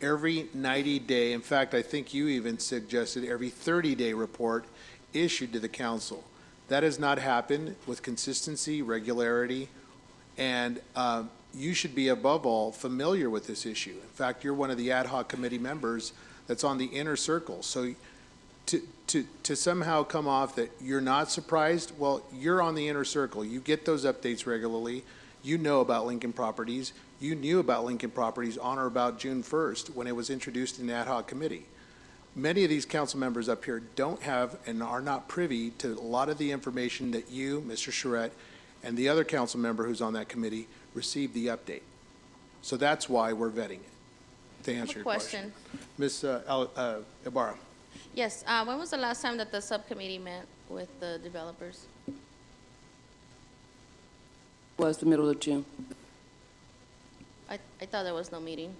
every 90-day, in fact, I think you even suggested every 30-day report issued to the council. That has not happened with consistency, regularity, and um, you should be above all familiar with this issue. In fact, you're one of the ad hoc committee members that's on the inner circle. So to, to, to somehow come off that you're not surprised, well, you're on the inner circle. You get those updates regularly. You know about Lincoln Properties. You knew about Lincoln Properties on or about June 1st when it was introduced in the ad hoc committee. Many of these council members up here don't have and are not privy to a lot of the information that you, Mr. Charette, and the other council member who's on that committee received the update. So that's why we're vetting it, to answer your question. Question. Ms. uh, Al- uh, Ibarra? Yes, uh, when was the last time that the subcommittee met with the developers? was the middle of June. I, I thought there was no meeting.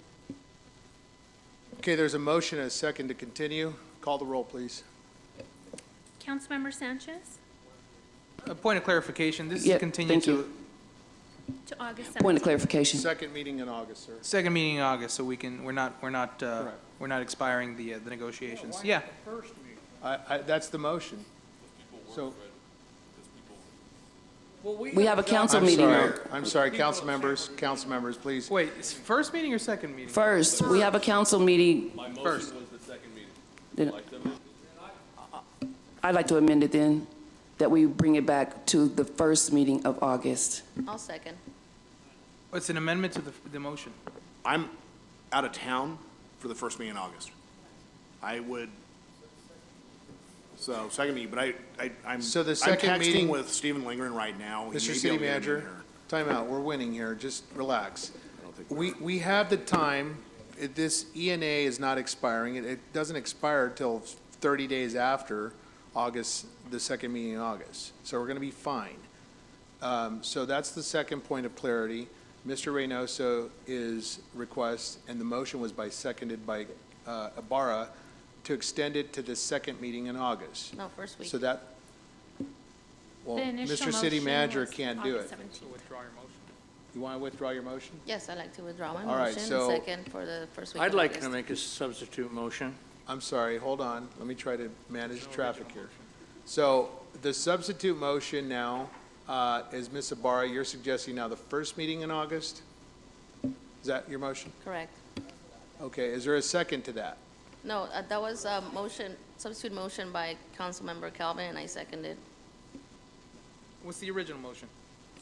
Okay, there's a motion and a second to continue. Call the roll, please. Councilmember Sanchez A point of clarification, this Yeah, is continued thank to you. to August 7th. Point of clarification. Second meeting in August, sir. second meeting in August, so we can, we're not, we're not, uh, Correct. we're not expiring the, uh, the negotiations. Yeah, I, I, that's the motion. So, We have a council I'm meeting sorry, on, I'm sorry, council members, council members, please. wait, it's first meeting or second meeting? first, we have a council meeting. First. Then- I'd like to amend it then, that we bring it back to the first meeting of August. I'll second. It's an amendment to the, the motion. I'm out of town for the first meeting in August. I would, so, second meeting, but I, I, I'm. So the I'm second texting meeting- with Stephen Lingren right now. He may Mr. be City able to get in Manager, here. time out, we're winning here, just relax. We, we have the time, It- this ENA is not expiring, it, it doesn't expire till 30 days after August, the second meeting in August, so we're going to be fine. Um, So that's the second point of clarity. Mr. Reynoso is request, and the motion was by, seconded by uh, Ibarra, to extend it to the second meeting in August. No, first week. So that, well, The initial Mr. City motion Manager was can't do it. August 17th. Withdraw your motion. You want to withdraw your motion? Yes, I'd like to withdraw my All right, motion, so- second for the first week I'd of like to August. make a substitute motion. I'm sorry, hold on, let me try to manage traffic here. So the substitute motion now uh, is, Ms. Ibarra, you're suggesting now the first meeting in August? Is that your motion? Correct. Okay, is there a second to that? No, uh, that was a motion, substitute motion by Councilmember Calvin, and I seconded. What's the original motion?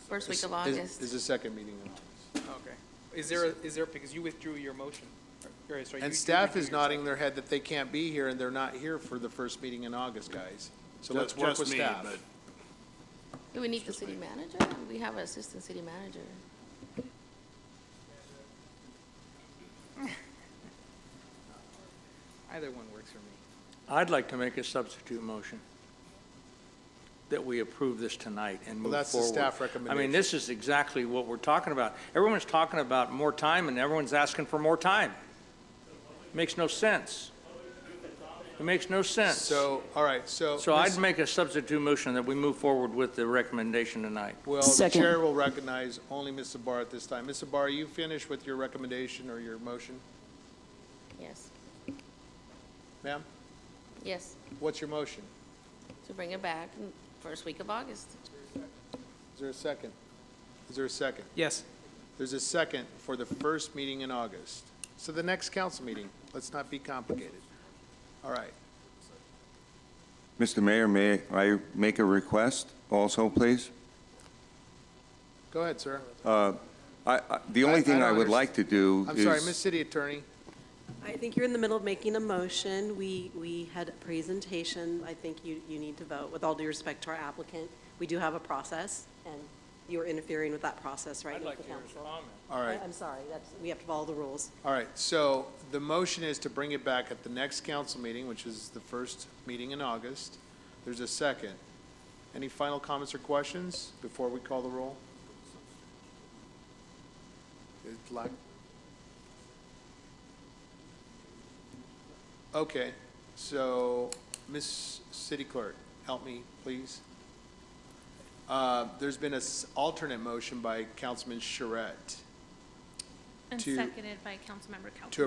First week of Is- August. Is the second meeting in August. Okay. Is there, a- is there, because you withdrew your motion. Or, sorry, you- you And staff withdrew is your nodding their head that they can't be here, and they're not here for the first meeting in August, guys. So let's Just- work just with me, staff. but- Do we need the city manager? We have an assistant city manager. second. Either one works for me. I'd like to make a substitute motion that we approve this tonight and move forward. that's the staff I mean, this is exactly what we're talking about. Everyone's talking about more time, and everyone's asking for more time. Makes no sense. It makes no sense. So, all right, so. So I'd Ms. make a substitute motion that we move forward with the recommendation tonight. Well, the Second. chair will recognize only Ms. Sabar at this time. Ms. Sabar, you finished with your recommendation or your motion? Yes, Ma'am, yes, what's your motion? to bring it back, mm, first week of August. Is there a second? Is there a second? Yes. There's a second for the first meeting in August. So the next council meeting, let's not be complicated. All right. Mr. Mayor, may I make a request also, please? Uh, Go ahead, sir. I- I- The I- I only thing I don't would underst- like to do I'm is... sorry, Ms. City Attorney. I think you're in the middle of making a motion. We, we had a presentation. I think you, you need to vote. With all due respect to our applicant, we do have a process, and you're interfering with that process right now with the council. All right. I- I'm sorry, that's, we have to follow the rules. All right, so the motion is to bring it back at the next council meeting, which is the first meeting in August. There's a second. Any final comments or questions before we call the roll? It's lack- Okay, so, Ms. City Clerk, help me, please. Uh, There's been an alternate motion by Councilman Charette. And to- seconded by Councilmember Calvin.